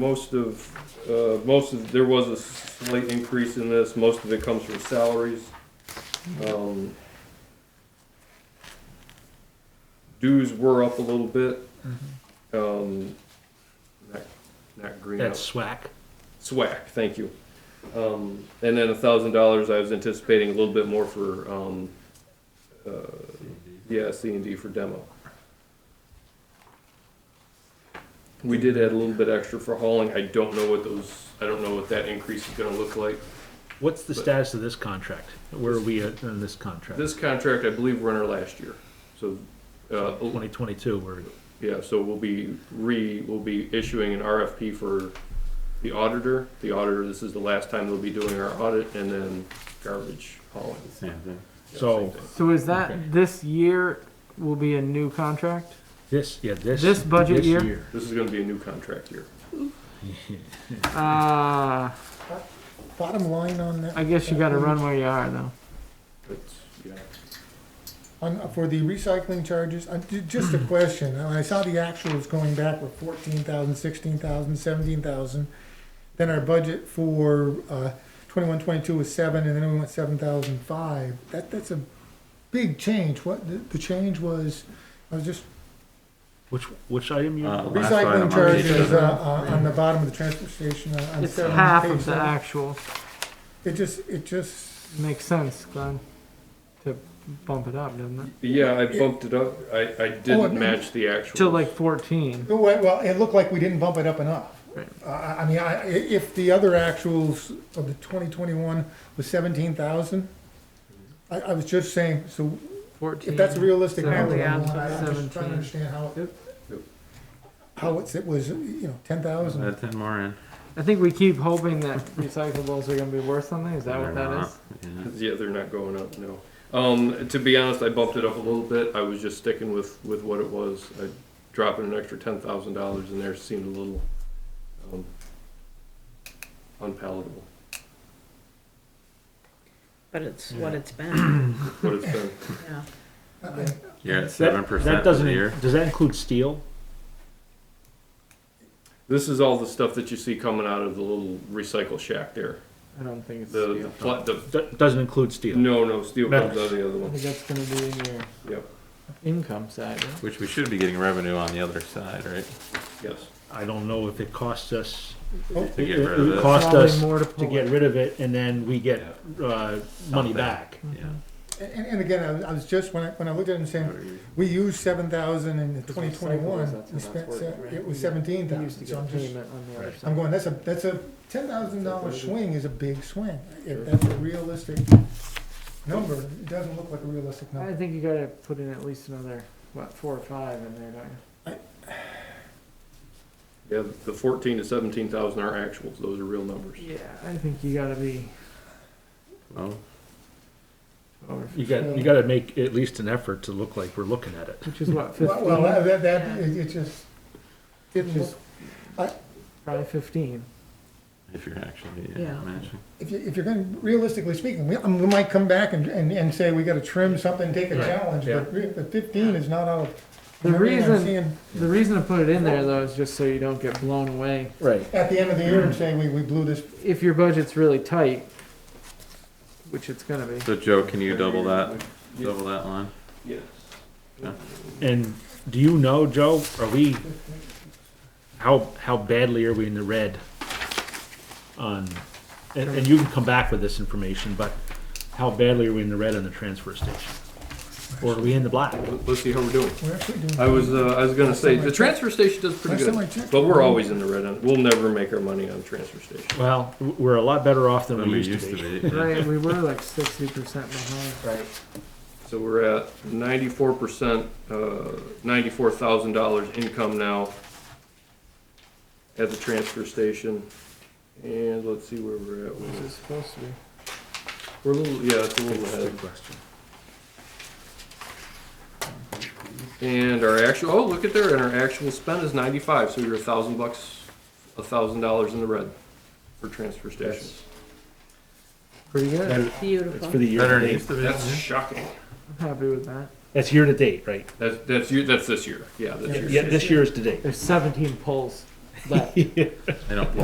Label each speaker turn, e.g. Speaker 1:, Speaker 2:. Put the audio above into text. Speaker 1: Most of, uh, most of, there was a slight increase in this, most of it comes from salaries. Um, Dues were up a little bit.
Speaker 2: Mm-hmm.
Speaker 1: Um, not, not green. out.
Speaker 2: That's SWAC.
Speaker 1: Swack, thank you. Um, and then a thousand dollars, I was anticipating a little bit more for, um, uh, yeah, C and D for demo. We did add a little bit extra for hauling. I don't know what those, I don't know what that increase is gonna look like.
Speaker 2: What's the
Speaker 1: But-
Speaker 2: status of this contract? Where are we at on this contract?
Speaker 1: This contract, I believe, we're under last year, so, uh,
Speaker 2: Twenty twenty-two, we're,
Speaker 1: yeah, so we'll be re, we'll be issuing an RFP for the auditor. The auditor, this is the last time they'll be doing our audit, and then garbage hauling.
Speaker 2: so,
Speaker 3: So is that
Speaker 2: Okay.
Speaker 3: this year will be a new contract?
Speaker 2: this, yeah, this.
Speaker 3: This budget year?
Speaker 1: This is gonna be a new contract here.
Speaker 3: Uh,
Speaker 4: Bottom line on that,
Speaker 3: I guess you got to run where you are though.
Speaker 1: It's, yeah.
Speaker 4: on, for the recycling charges, I- ju- just a question, and I saw the actuals going back with fourteen thousand, sixteen thousand, seventeen thousand. Then our budget for, uh, twenty-one, twenty-two was seven, and then we went seven thousand five. That, that's a big change. What, the, the change was, I was just,
Speaker 2: Which, which item you?
Speaker 5: Uh, Last item on
Speaker 4: recycling
Speaker 5: the
Speaker 4: charges, uh,
Speaker 5: agenda.
Speaker 4: uh, on the bottom of the transfer station. uh, on
Speaker 3: It's
Speaker 4: seven,
Speaker 3: half
Speaker 4: page
Speaker 3: of the
Speaker 4: seven.
Speaker 3: actual.
Speaker 4: It just, it just,
Speaker 3: Makes sense, Glenn, to bump it up, doesn't it?
Speaker 1: Yeah, I bumped it up. I, I
Speaker 4: Oh, it-
Speaker 1: didn't match the actual.
Speaker 3: To like 14.
Speaker 4: Well, well, it looked like we didn't bump it up enough.
Speaker 3: Right.
Speaker 4: Uh, I I mean, I, i- if the other actuals of the twenty twenty-one was seventeen thousand, I, I was just saying, so
Speaker 3: 14.
Speaker 4: if that's a realistic number,
Speaker 3: Seventeen.
Speaker 4: I'm I'm just trying to understand how,
Speaker 3: Yep.
Speaker 1: Yep.
Speaker 4: how it's, it was, you know, ten thousand.
Speaker 5: Add ten more in.
Speaker 3: I think we keep hoping that recyclables are going to be worth something. Is that what
Speaker 5: They're
Speaker 3: that
Speaker 5: not.
Speaker 3: is?
Speaker 5: Yeah.
Speaker 1: Yeah, they're not going up, no. Um, to be honest, I bumped it up a little bit. I was just sticking with, with what it was. I dropping an extra ten thousand dollars in there seemed a little, um, unpalatable,
Speaker 6: But it's what it's been,
Speaker 1: what it's been.
Speaker 6: yeah.
Speaker 5: You're at
Speaker 2: That-
Speaker 5: seven percent
Speaker 2: That
Speaker 5: for
Speaker 2: doesn't,
Speaker 5: the year.
Speaker 2: does that include steel?
Speaker 1: This is all the stuff that you see coming out of the little recycle shack there.
Speaker 3: I don't think it's.
Speaker 1: The, the,
Speaker 3: steel.
Speaker 1: pla- the,
Speaker 2: That doesn't include steel.
Speaker 1: no, no, steel comes out of the other
Speaker 3: I
Speaker 1: one.
Speaker 3: think that's going to be in your
Speaker 1: Yep,
Speaker 3: income side. right?
Speaker 5: Which we should be getting revenue on the other side, right?
Speaker 1: yes.
Speaker 2: I don't know if it costs us.
Speaker 5: To get rid of
Speaker 2: It
Speaker 5: this.
Speaker 2: cost
Speaker 3: Probably
Speaker 2: us
Speaker 3: more to
Speaker 2: to
Speaker 3: pull
Speaker 2: get
Speaker 3: it.
Speaker 2: rid of it and then we get, uh, money
Speaker 5: Something.
Speaker 2: back.
Speaker 5: Yeah.
Speaker 4: And, and again, I was, I was just, when I, when I looked at it and saying, we used seven thousand in
Speaker 3: Because
Speaker 4: twenty
Speaker 3: recyclables,
Speaker 4: twenty-one,
Speaker 3: that's how
Speaker 4: we
Speaker 3: that's
Speaker 4: spent,
Speaker 3: worked,
Speaker 4: se-
Speaker 3: right?
Speaker 4: it was
Speaker 3: You-
Speaker 4: seventeen
Speaker 3: You used to
Speaker 4: thousand, so
Speaker 3: get
Speaker 4: I'm just.
Speaker 3: payment on the other side.
Speaker 4: I'm going, that's a, that's a ten thousand dollar swing is a big swing.
Speaker 3: Sure.
Speaker 4: If that's a realistic number, it doesn't look like a realistic
Speaker 3: I
Speaker 4: number.
Speaker 3: think you gotta put in at least another, what, four or five in there, don't you?
Speaker 1: Yeah, the fourteen to seventeen thousand are actuals. Those are real numbers.
Speaker 3: Yeah. I think you gotta be
Speaker 5: Well,
Speaker 3: over,
Speaker 2: You got, you gotta make at least an effort to look like we're looking at it.
Speaker 3: which is what,
Speaker 4: Well, well, that-
Speaker 3: fifteen,
Speaker 4: that, that, it it just, didn't look-
Speaker 3: Just- probably fifteen.
Speaker 5: if you're actually
Speaker 6: Yeah.
Speaker 5: yeah, matching.
Speaker 4: if you, if you're gonna, realistically speaking, we, um, we might come back and, and, and say we gotta trim something, take a
Speaker 2: Right,
Speaker 4: challenge, but re- but fifteen is not out of.
Speaker 3: The
Speaker 4: everything I'm
Speaker 3: reason-
Speaker 4: seeing
Speaker 3: The reason to put it in there though is just so you don't get blown away.
Speaker 2: Right.
Speaker 4: At the end of the year and saying we, we blew this,
Speaker 3: If your budget's really tight, which it's gonna be,
Speaker 5: So Joe, can you double that? Double that line.
Speaker 1: Yes.
Speaker 5: Yeah.
Speaker 2: And do you know, Joe, are we, how, how badly are we in the red on, and, and you can come back with this information, but how badly are we in the red on the transfer station? Or are we in the black?
Speaker 1: Let's see how we're doing.
Speaker 4: we're actually doing.
Speaker 1: I was, uh, I was gonna say, the transfer station does pretty
Speaker 4: Last time I
Speaker 1: good,
Speaker 4: checked-
Speaker 1: but we're always in the red end. We'll never make our money on the transfer station.
Speaker 2: Well, w- we're a lot better off than
Speaker 5: Than
Speaker 2: we used to be.
Speaker 5: yeah.
Speaker 3: right, we were like sixty percent behind. Right.
Speaker 1: So we're at ninety-four percent, uh, ninety-four thousand dollars income now at the transfer station. And let's see where we're at.
Speaker 3: Which is supposed to be.
Speaker 1: We're a little, yeah, it's a little ahead.
Speaker 2: question.
Speaker 1: And our actual, oh, look at there, and our actual spend is ninety-five, so you're a thousand bucks, a thousand dollars in the red for transfer station.
Speaker 3: Pretty good. I'm
Speaker 2: It's
Speaker 6: Beautiful.
Speaker 2: for the year
Speaker 5: Better
Speaker 2: to
Speaker 5: than
Speaker 2: date.
Speaker 5: used to be.
Speaker 1: That's
Speaker 5: yeah.
Speaker 1: shocking.
Speaker 3: happy with that.
Speaker 2: That's year to date, right?
Speaker 1: That's, that's, you- that's this year, yeah, that's year.
Speaker 2: Yeah, this year is to date.
Speaker 3: There's seventeen pulls.
Speaker 6: but.
Speaker 5: I don't.